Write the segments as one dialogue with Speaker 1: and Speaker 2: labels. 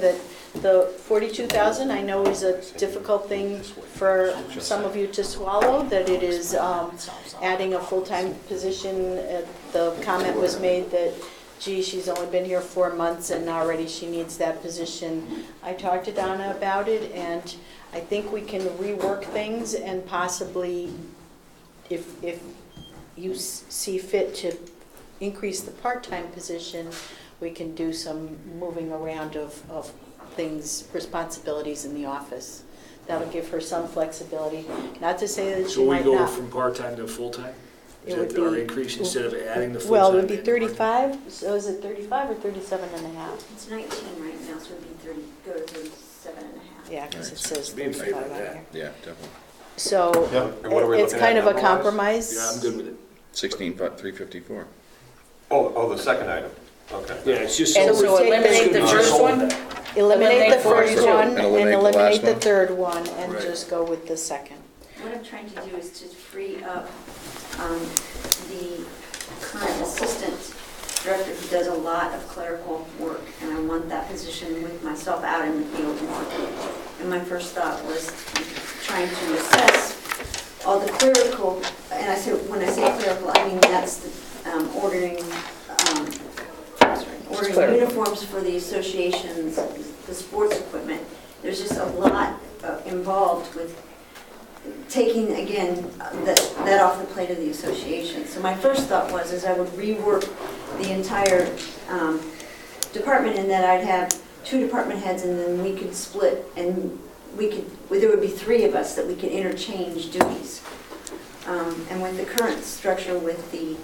Speaker 1: that the 42,000, I know is a difficult thing for some of you to swallow, that it is um, adding a full-time position. Uh, The comment was made that, gee, she's only been here four months and already she needs that position. I talked to Donna about it, and I think we can rework things and possibly, if, if you s- see fit to increase the part-time position, we can do some moving around of, of things, responsibilities in the office. That'll give her some flexibility, not to say that she
Speaker 2: So we
Speaker 1: might
Speaker 2: go
Speaker 1: not.
Speaker 2: from part-time to full-time?
Speaker 1: It
Speaker 2: Is
Speaker 1: would
Speaker 2: that our
Speaker 1: be-
Speaker 2: increase instead of adding the full-time?
Speaker 1: Well, it would be
Speaker 2: and part-time?
Speaker 1: thirty-five, so is it thirty-five or thirty-seven and a half?
Speaker 3: It's 19 right now, so it'd be 30, go to 37 and a half.
Speaker 1: Yeah, because it
Speaker 4: Right.
Speaker 1: says
Speaker 5: Be in favor
Speaker 1: thirty-five
Speaker 5: of
Speaker 1: on
Speaker 5: that.
Speaker 1: here.
Speaker 4: Yeah, definitely.
Speaker 1: So
Speaker 5: Yeah.
Speaker 6: And what are we
Speaker 1: it- it's
Speaker 6: looking at
Speaker 1: kind of a
Speaker 6: number-wise?
Speaker 1: compromise.
Speaker 2: Yeah, I'm good with it.
Speaker 4: Sixteen, but three fifty-four.
Speaker 6: Oh, oh, the second item, okay.
Speaker 2: Yeah, it's just.
Speaker 1: And so eliminate the
Speaker 2: Just
Speaker 1: first
Speaker 2: hold
Speaker 7: one?
Speaker 2: that.
Speaker 1: Eliminate the
Speaker 7: Eliminate
Speaker 1: first
Speaker 7: first two.
Speaker 1: one and
Speaker 4: Eliminate the
Speaker 1: eliminate
Speaker 4: last
Speaker 1: the
Speaker 4: one.
Speaker 1: third one and
Speaker 2: Right.
Speaker 1: just go with the second.
Speaker 3: What I'm trying to do is to free up um, the current assistant director who does a lot of clerical work, and I want that position with myself out in the field more. And my first thought was trying to assess all the clerical, and I say, when I say clerical, I mean that's the um, ordering, um, sorry, ordering uniforms for the associations, the sports equipment. There's just a lot uh, involved with taking, again, uh, that that off the plate of the association. So my first thought was, is I would rework the entire um, department in that I'd have two department heads and then we could split and we could, well, there would be three of us that we could interchange duties. Um, And with the current structure with the,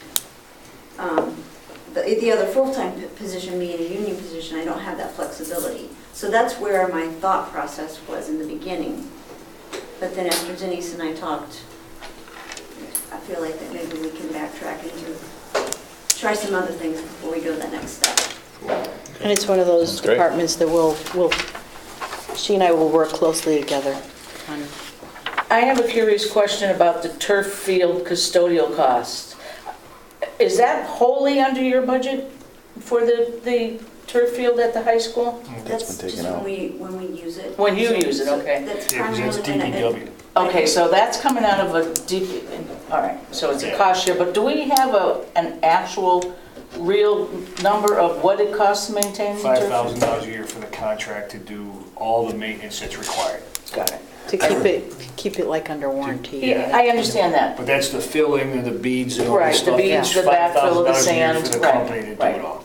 Speaker 3: um, the the other full-time p- position being a union position, I don't have that flexibility. So that's where my thought process was in the beginning. But then after Denise and I talked, I feel like that maybe we can backtrack and do, try some other things before we go to the next step.
Speaker 1: And it's one of those
Speaker 6: Sounds great.
Speaker 1: departments that will, will, she and I will work closely together on.
Speaker 7: I have a curious question about the turf field custodial costs. Is that wholly under your budget for the, the turf field at the high school?
Speaker 3: That's just when we, when we use it.
Speaker 7: When you use it, okay.
Speaker 3: That's
Speaker 2: Yeah, 'cause
Speaker 3: primarily.
Speaker 2: that's
Speaker 3: when I-
Speaker 2: DPW.
Speaker 7: Okay, so that's coming out of a D, all right, so it's a cost share, but do we have a, an actual, real number of what it costs to maintain the turf?
Speaker 2: Five thousand dollars a year for the contract to do all the maintenance that's required.
Speaker 7: Got it.
Speaker 1: To keep it, keep it like under warranty.
Speaker 7: Yeah, I understand that.
Speaker 2: But that's the filling and the beads and all
Speaker 7: Right,
Speaker 2: that
Speaker 7: the
Speaker 2: stuff.
Speaker 7: beads,
Speaker 2: It's
Speaker 7: the backfill of
Speaker 2: $5,000 a
Speaker 7: the
Speaker 2: year
Speaker 7: sand,
Speaker 2: For the
Speaker 7: right,
Speaker 2: company to do
Speaker 7: right.
Speaker 2: it all.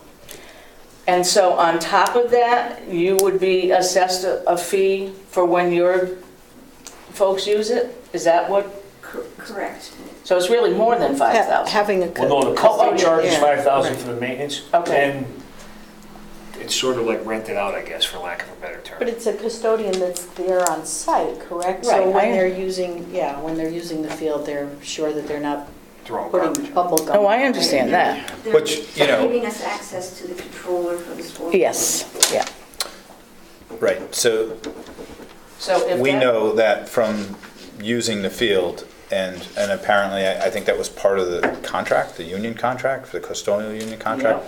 Speaker 7: And so on top of that, you would be assessed a a fee for when your folks use it? Is that what,
Speaker 3: Cor- Correct.
Speaker 7: so it's really more than
Speaker 1: Ha-
Speaker 7: 5,000?
Speaker 1: Having a.
Speaker 2: Well, no, the
Speaker 7: Oh,
Speaker 2: company
Speaker 7: yeah,
Speaker 2: charges
Speaker 1: yeah,
Speaker 2: five thousand
Speaker 1: right.
Speaker 2: for the maintenance.
Speaker 7: Okay.
Speaker 2: And it's sort of like rented out, I guess, for lack of a better term.
Speaker 1: But it's a custodian that's there on site, correct?
Speaker 7: Right,
Speaker 1: So when
Speaker 7: I-
Speaker 1: they're using, yeah, when they're using the field, they're sure that they're not
Speaker 2: Throw
Speaker 1: putting
Speaker 2: garbage.
Speaker 1: bubble gum.
Speaker 7: Oh, I understand that.
Speaker 3: They're
Speaker 4: Which, you know-
Speaker 3: Giving us access to the controller for the sport.
Speaker 7: yeah.
Speaker 4: Right, so
Speaker 7: So if
Speaker 4: we
Speaker 7: that-
Speaker 4: know that from using the field, and, and apparently, I, I think that was part of the contract, the union contract, the custodial union contract,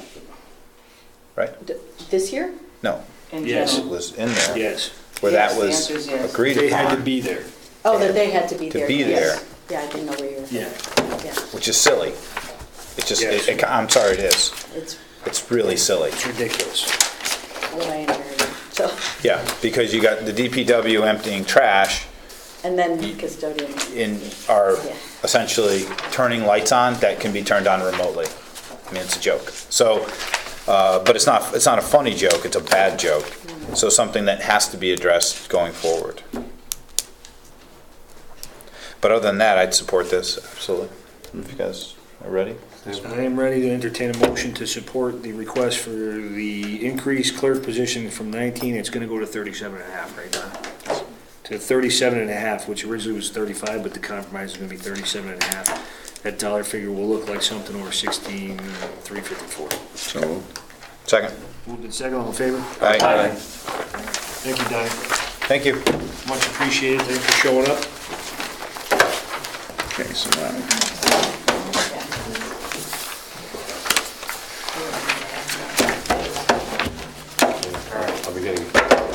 Speaker 4: right?
Speaker 1: D- This year?
Speaker 4: No,
Speaker 7: In
Speaker 2: Yes.
Speaker 4: it
Speaker 7: general.
Speaker 4: was in there,
Speaker 2: Yes.
Speaker 4: where that
Speaker 7: Yes, the
Speaker 4: was
Speaker 7: answer is yes.
Speaker 4: agreed
Speaker 2: They had to
Speaker 4: upon,
Speaker 2: be there.
Speaker 1: Oh, that they had to be
Speaker 4: To
Speaker 1: there.
Speaker 4: be
Speaker 1: yes. Yeah, I didn't know where you were.
Speaker 2: Yeah.
Speaker 1: Yeah,
Speaker 4: which is silly. It just,
Speaker 2: Yes.
Speaker 4: it- it- I'm sorry, it is.
Speaker 1: it's
Speaker 4: It's really silly.
Speaker 2: It's ridiculous.
Speaker 1: what I inherited, so,
Speaker 4: Yeah, because you got the DPW emptying trash,
Speaker 1: and then custodian.
Speaker 4: in are
Speaker 1: Yeah.
Speaker 4: essentially turning lights on that can be turned on remotely. I mean, it's a joke. So, uh, but it's not, it's not a funny joke, it's a bad joke. So something that has to be addressed going forward. But other than that, I'd support this, absolutely. If you guys are ready?
Speaker 2: I am ready to entertain a motion to support the request for the increased clerk position from 19, it's going to go to 37 and a half right now. To 37 and a half, which originally was 35, but the compromise is going to be 37 and a half. That dollar figure will look like something over 16,354.
Speaker 4: So. Second.
Speaker 2: Moved in second, all in favor?
Speaker 4: Aye. Aye.
Speaker 2: Thank you, Donnie.
Speaker 4: Thank you.
Speaker 2: Much appreciated, thanks for showing up.
Speaker 4: Okay, so now.